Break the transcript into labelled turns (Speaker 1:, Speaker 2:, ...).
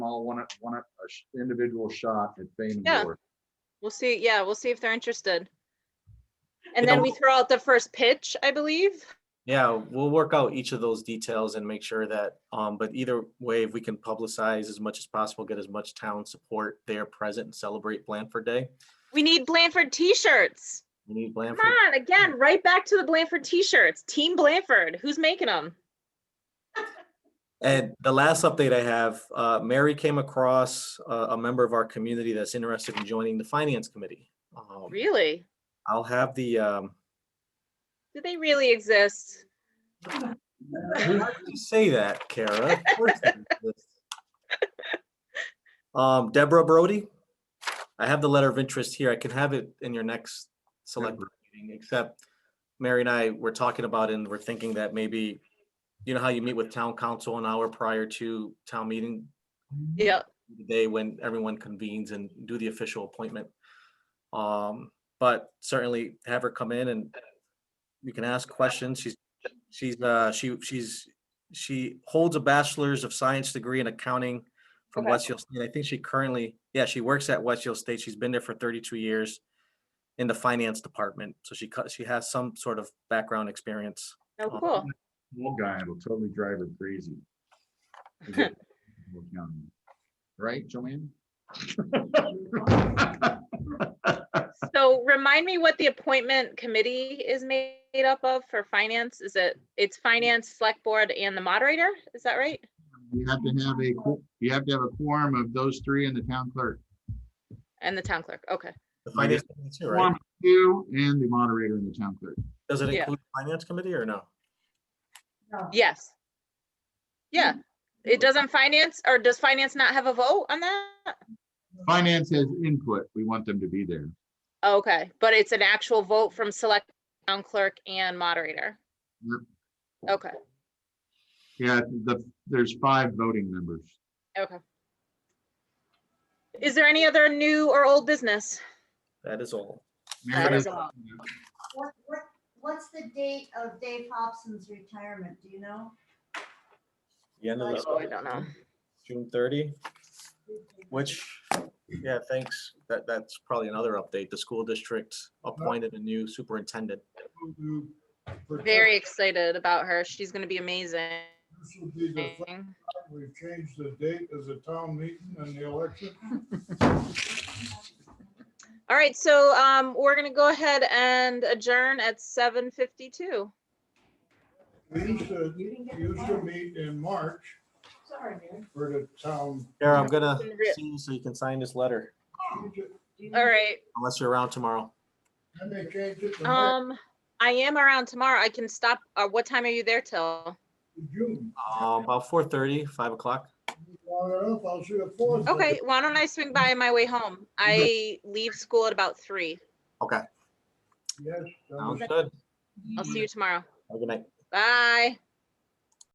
Speaker 1: small one, one, a sh- individual shot at Fame
Speaker 2: Yeah.
Speaker 1: Door.
Speaker 2: We'll see, yeah, we'll see if they're interested. And
Speaker 3: Yeah,
Speaker 2: then we
Speaker 3: we'll-
Speaker 2: throw out the first pitch, I believe.
Speaker 3: Yeah, we'll work out each of those details and make sure that, um, but either way, if we can publicize as much as possible, get as much town support there present and celebrate Blanford Day.
Speaker 2: We need Blanford t-shirts.
Speaker 3: We need
Speaker 2: Come
Speaker 3: Blanford.
Speaker 2: on, again, right back to the Blanford t-shirts. Team Blanford, who's making them?
Speaker 3: And the last update I have, uh, Mary came across a, a member of our community that's interested in joining the finance committee. Um,
Speaker 2: Really?
Speaker 3: I'll have the, um,
Speaker 2: Do they really exist?
Speaker 3: Why would you say that, Kara? Of course it exists. Um, Deborah Brody, I have the letter of interest here. I can have it in your next select board meeting, except Mary and I were talking about and we're thinking that maybe, you know how you meet with town council an hour prior to town meeting?
Speaker 2: Yeah,
Speaker 3: the day when everyone convenes and do the official appointment. Um, but certainly have her come in and you can ask questions. She's, she's, uh, she, she's, she holds a bachelor's of science degree in accounting from
Speaker 2: Okay.
Speaker 3: Westfield State. I think she currently, yeah, she works at Westfield State. She's been there for thirty-two years in the finance department. So she cut, she has some sort of background experience.
Speaker 2: oh,
Speaker 3: Oh,
Speaker 2: cool.
Speaker 1: Little guy will totally drive her crazy. Is it- Right, Joanne?
Speaker 2: So remind me what the appointment committee is made up of for finance? Is it, it's finance, select board and the moderator? Is that right?
Speaker 1: You have to have a, qu- you have to have a quorum of those three and the town clerk.
Speaker 2: And the town clerk, okay.
Speaker 3: The
Speaker 1: Right.
Speaker 3: finance committee too,
Speaker 1: Quorum
Speaker 3: right?
Speaker 1: of You and the moderator and the town clerk.
Speaker 3: Does it
Speaker 2: Yeah.
Speaker 3: include the finance committee or no?
Speaker 2: Yes. Yeah, it doesn't finance, or does finance not have a vote on that?
Speaker 1: Finance has input. We want them to be there.
Speaker 2: Okay, but it's an actual vote from select town clerk and moderator.
Speaker 1: Yep.
Speaker 2: Okay,
Speaker 1: Yeah, the, there's five voting members.
Speaker 2: okay. Is there any other new or old business?
Speaker 3: That is all.
Speaker 1: Mary
Speaker 2: That
Speaker 1: has-
Speaker 2: is a lot.
Speaker 4: What, what, what's the date of Dave Hobson's retirement? Do you know?
Speaker 3: The end of
Speaker 2: Oh, I
Speaker 3: the-
Speaker 2: don't know.
Speaker 3: June thirty. Which, yeah, thanks. That, that's probably another update. The school district appointed a new superintendent.
Speaker 2: Very excited about her. She's gonna be amazing.
Speaker 5: This will be the fact we've changed the date as a town meeting and the election.
Speaker 2: All right, so um, we're gonna go ahead and adjourn at seven fifty-two.
Speaker 5: We used to,
Speaker 4: You didn't get the
Speaker 5: used to
Speaker 4: letter?
Speaker 5: meet in March
Speaker 4: Sorry, Mary.
Speaker 5: for the town.
Speaker 3: Kara, I'm gonna
Speaker 2: Been writ-
Speaker 3: see you so you can sign this letter,
Speaker 4: Do you
Speaker 2: All
Speaker 4: know-
Speaker 2: right,
Speaker 3: unless you're around tomorrow.
Speaker 5: And they changed it to May,
Speaker 2: um, I am around tomorrow. I can stop, uh, what time are you there till?
Speaker 5: June.
Speaker 3: Uh, About four thirty, five o'clock.
Speaker 5: Long enough, I'll see you fourth.
Speaker 2: Okay, why don't I swing by on my way home? I leave school at about three.
Speaker 5: Yes. um,
Speaker 3: Sounds good.
Speaker 2: I'll see you tomorrow.
Speaker 3: Have a good night.
Speaker 2: Bye.